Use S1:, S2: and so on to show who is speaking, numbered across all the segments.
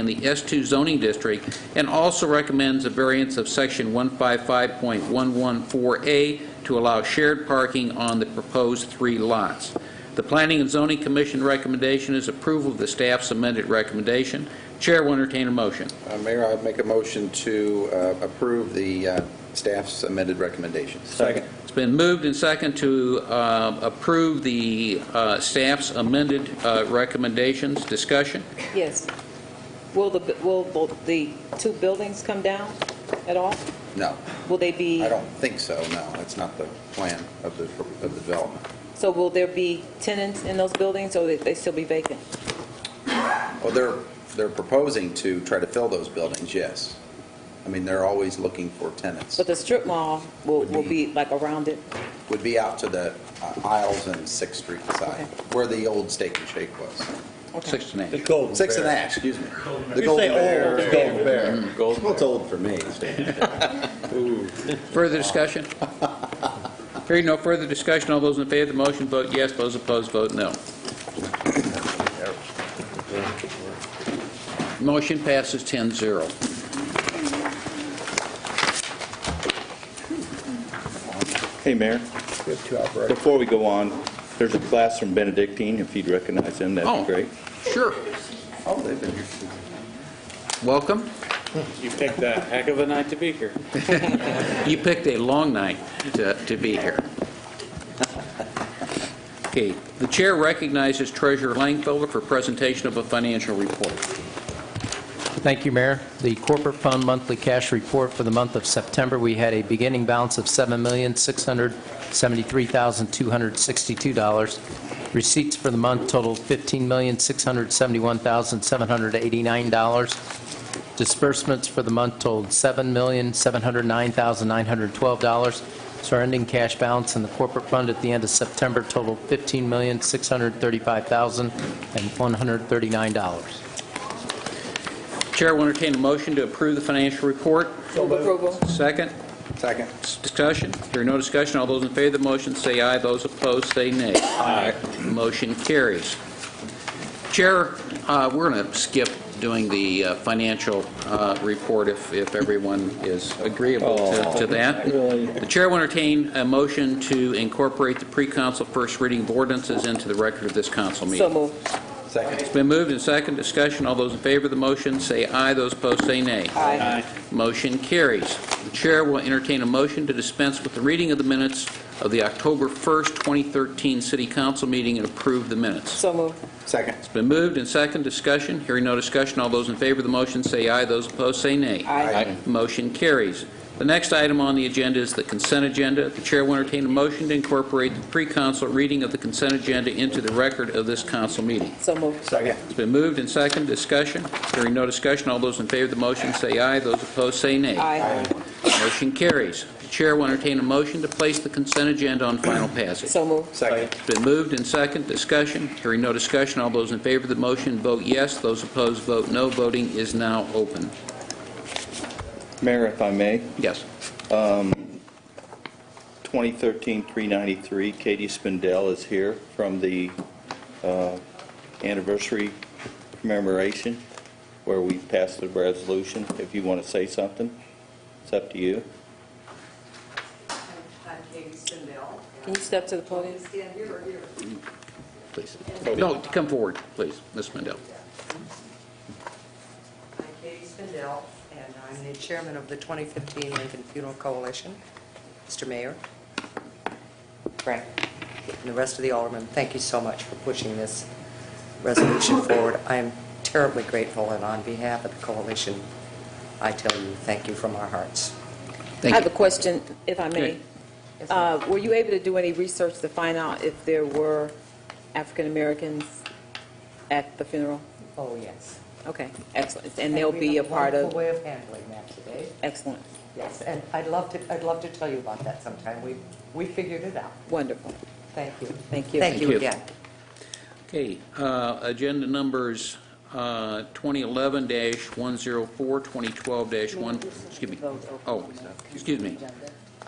S1: in the S2 zoning district, and also recommends a variance of Section 155.114A to allow shared parking on the proposed three lots. The Planning and Zoning Commission recommendation is approval of the staff's amended recommendation. Chair will entertain a motion.
S2: Uh, Mayor, I'd make a motion to uh, approve the uh, staff's amended recommendations.
S3: Second.
S1: It's been moved and second to uh, approve the uh, staff's amended uh, recommendations. Discussion?
S4: Yes. Will the, will both the two buildings come down at all?
S2: No,
S4: Will they be,
S2: I don't think so, no. That's not the plan of the, of the development.
S4: so will there be tenants in those buildings, or they still be vacant?
S2: Well, they're, they're proposing to try to fill those buildings, yes. I mean, they're always looking for tenants.
S4: But the strip mall will, will be like around it?
S2: Would be out to the uh, aisles and Sixth Street side, where the old Steak and Shake was.
S4: Okay.
S1: Six to nine.
S3: The Golden
S2: Sixth and
S3: Bear.
S2: Ash, excuse me. The
S3: You say
S2: Golden
S3: old,
S2: Bear.
S3: it's Golden Bear.
S2: Golden Well, it's old for me.
S1: Further discussion? Hearing no further discussion, all those in favor of the motion vote yes, those opposed vote no. Motion passes 10-0.
S5: Hey, Mayor,
S3: We have two outright.
S5: before we go on, there's a class from Benedictine, if you'd recognize them,
S1: Oh.
S5: that'd be great.
S1: Sure.
S2: Oh, they've been here.
S1: Welcome.
S6: You picked a heck of a night to be here.
S1: You picked a long night to to be here. Okay, the chair recognizes Treasurer Langfelder for presentation of a financial report.
S7: Thank you, Mayor. The corporate fund monthly cash report for the month of September, we had a beginning balance of $7,673,262. Receipts for the month totaled $15,671,789. Disbursements for the month totaled $7,709,912. So our ending cash balance in the corporate fund at the end of September totaled $15,635,139.
S1: Chair will entertain a motion to approve the financial report.
S4: Move approval.
S1: Second?
S2: Second.
S1: Discussion? Hearing no discussion, all those in favor of the motion say aye, those opposed say nay. Aye. Motion carries. Chair, uh, we're going to skip doing the uh, financial uh, report if if everyone is agreeable to- to that. The chair will entertain a motion to incorporate the pre-council first reading of ordinances into the record of this council meeting.
S4: So moved.
S2: Second.
S1: It's been moved and second discussion. All those in favor of the motion say aye, those opposed say nay.
S4: Aye.
S1: Motion carries. The chair will entertain a motion to dispense with the reading of the minutes of the October 1st, 2013 City Council meeting and approve the minutes.
S4: So moved.
S2: Second.
S1: It's been moved and second discussion. Hearing no discussion, all those in favor of the motion say aye, those opposed say nay.
S4: Aye.
S1: Motion carries. The next item on the agenda is the consent agenda. The chair will entertain a motion to incorporate the pre-council reading of the consent agenda into the record of this council meeting.
S4: So moved.
S3: Second.
S1: It's been moved and second discussion. Hearing no discussion, all those in favor of the motion say aye, those opposed say nay.
S4: Aye.
S1: Motion carries. The chair will entertain a motion to place the consent agenda on final passage.
S4: So moved.
S2: Second.
S1: It's been moved and second, discussion. Hearing no discussion, all those in favor of the motion vote yes, those opposed vote no. Voting is now open.
S5: Mayor, if I may,
S1: Yes.
S5: 2013-393, Katie Spindell is here from the uh, anniversary commemoration where we passed the resolution. If you want to say something, it's up to you.
S8: I'm Katie Sindell.
S4: Can you step to the podium?
S8: Stand here or here?
S1: Please. No, come forward, please, Ms. Mendel.
S8: I'm Katie Spindell, and I'm the chairman of the 2015 Lincoln Funeral Coalition. Mr. Mayor, Frank, and the rest of the aldermen, thank you so much for pushing this resolution forward. I am terribly grateful, and on behalf of the coalition, I tell you, thank you from our hearts.
S4: I
S1: Thank
S4: have a
S1: you.
S4: question, if I may.
S1: Okay.
S8: ma'am.
S4: Uh, Were you able to do any research to find out if there were African-Americans at the funeral?
S8: Oh, yes.
S4: Okay, excellent. And they'll be a part
S8: And we
S4: of,
S8: have a wonderful way of handling that today.
S4: excellent,
S8: Yes, and I'd love to, I'd love to tell you about that sometime. We, we figured it out.
S4: wonderful.
S8: Thank you.
S4: Thank you.
S8: Thank
S1: Thank
S8: you
S1: you.
S8: again.
S1: Okay, uh, agenda numbers uh, 2011-104, 2012-1, excuse me. Oh, excuse me.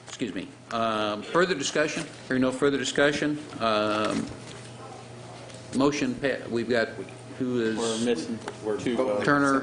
S1: Excuse me. Um, Further discussion? Hearing no further discussion. um, Motion, pa- we've got, who
S3: We're
S1: is
S3: missing two votes.
S1: Turner,